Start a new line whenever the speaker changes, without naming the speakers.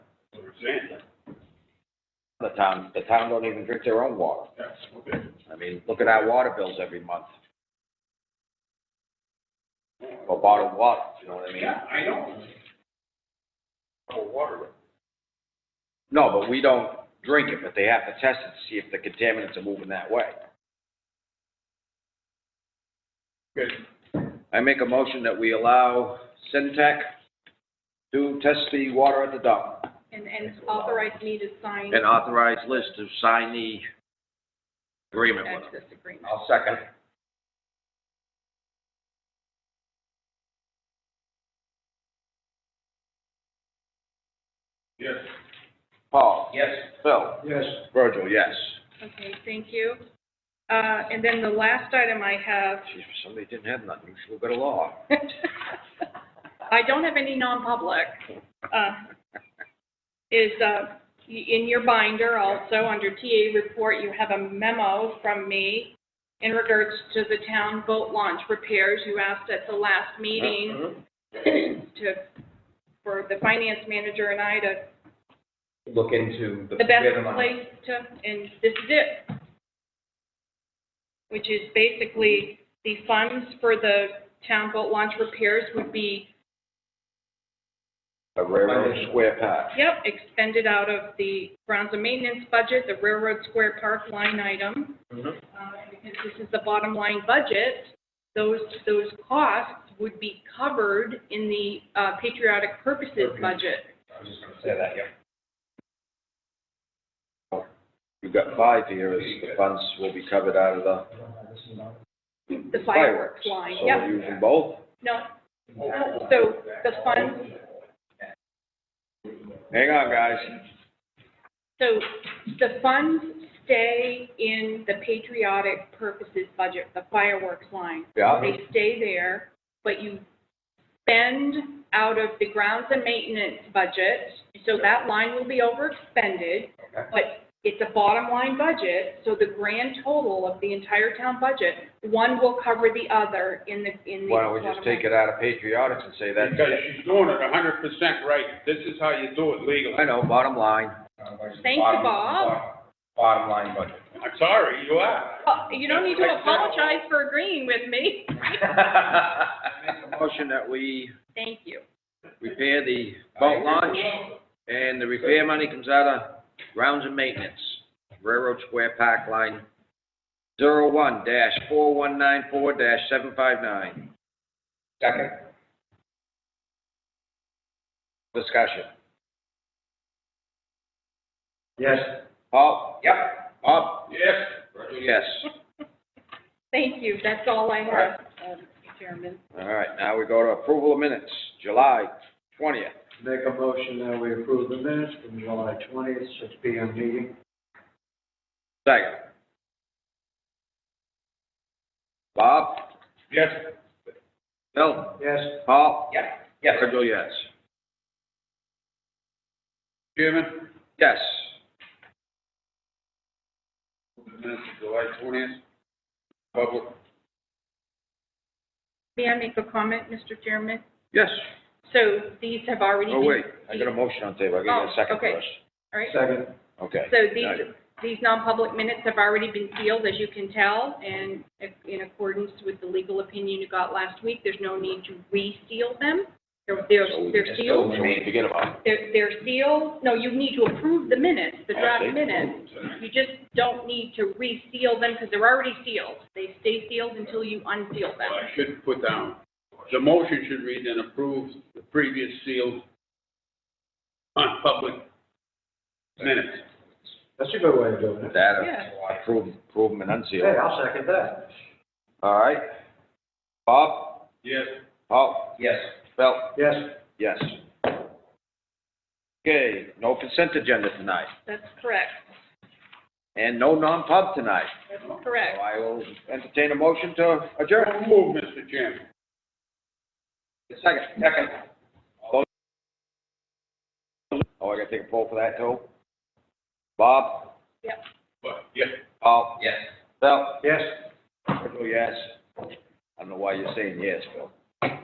Sandy,
The town, the town don't even drink their own water.
that's what they,
I mean, look at our water bills every month for bottled water, you know what I mean?
yeah, I know. Oh, water,
No, but we don't drink it, but they have to test it to see if the contaminants are moving that way.
good,
I make a motion that we allow Centec to test the water at the dump
And, and authorize me to sign
and authorize Liz to sign the agreement with them.
access agreement.
I'll second.
yes.
Paul?
Yes.
Phil?
Yes.
Virgil, yes.
Okay, thank you. Uh, and then the last item I have,
Geez, somebody didn't have nothing, she'll go to law.
I don't have any non-public, uh, is, uh, y- in your binder also, under TA report, you have a memo from me in regards to the town boat launch repairs. You asked at the last meeting
Uh-huh.
to, for the finance manager and I to
look into the.
the best
where money-
place to, and this is it. Which is basically the funds for the town boat launch repairs would be,
A railroad square patch.
yep, expended out of the grounds and maintenance budget, the railroad square park line item.
Mhm.
Uh, Because this is the bottom line budget, those, those costs would be covered in the uh, patriotic purposes budget.
I was just gonna say that, yeah.
You've got five here, is the funds will be covered out of the
The fireworks line,
So
yep,
we're using both,
no, no, so the funds
hang on, guys.
So the funds stay in the patriotic purposes budget, the fireworks line.
Yeah,
They stay there, but you spend out of the grounds and maintenance budget, so that line will be overexpended.
Okay.
But it's a bottom line budget, so the grand total of the entire town budget, one will cover the other in the, in the.
why don't we just
bottom
take it
line.
out of patriotics and say that's
Because
it?
she's doing it a hundred percent right, this is how you do it legally.
I know, bottom line,
Thank you, Bob.
Bottom line budget.
I'm sorry, you are.
Oh, You don't need to apologize for agreeing with me.
make a motion that we
Thank you.
repair the boat launch, and the repair money comes out of grounds and maintenance, Railroad Square Park Line, zero one dash four one nine four dash seven five nine.
Second,
Discussion.
yes.
Paul?
Yep.
Bob?
Yes.
Yes.
Thank you, that's all I have, um, Chairman.
All right, now we go to approval of minutes, July twentieth.
Make a motion that we approve the minutes from July twentieth, six P M meeting.
Second. Bob?
Yes.
Bill?
Yes.
Paul?
Yeah.
Yes. Virgil, yes.
Chairman,
Yes.
the minutes of July twentieth, public,
May I make a comment, Mr. Chairman?
Yes.
So these have already
Oh,
been.
wait, I got a motion on the table, I gotta get a
Oh,
second
okay.
first.
All right,
Second,
Okay.
so
Now
these,
you-
these non-public minutes have already been sealed, as you can tell, and if- in accordance with the legal opinion you got last week, there's no need to re-seal them. They're, they're
so we-
they're
so
sealed,
we may Forget about it.
they're, they're sealed, no, you need to approve the minutes,
Oh,
the
they-
draft minutes. You just don't need to reseal them, because they're already sealed. They stay sealed until you unseal
well,
them.
I should put down, the motion should read and approve the previous sealed on public minutes.
that's a good way of doing it.
That,
Yeah.
uh, approve, approve them and unseal
Hey,
them.
I'll second that.
All right. Bob?
Yes.
Paul?
Yes.
Bill?
Yes,
Yes. Okay, no consent agenda tonight,
That's correct,
and no non-pub tonight.
that's
So
correct.
I will entertain a motion to adjourn.
So Move, Mr. Chairman.
Second, second. All those- Oh, I gotta take a poll for that too? Bob?
But, yes.
Paul?
Yes.
Bill?
yes.
Virgil, yes. I don't know why you're saying yes, Bill.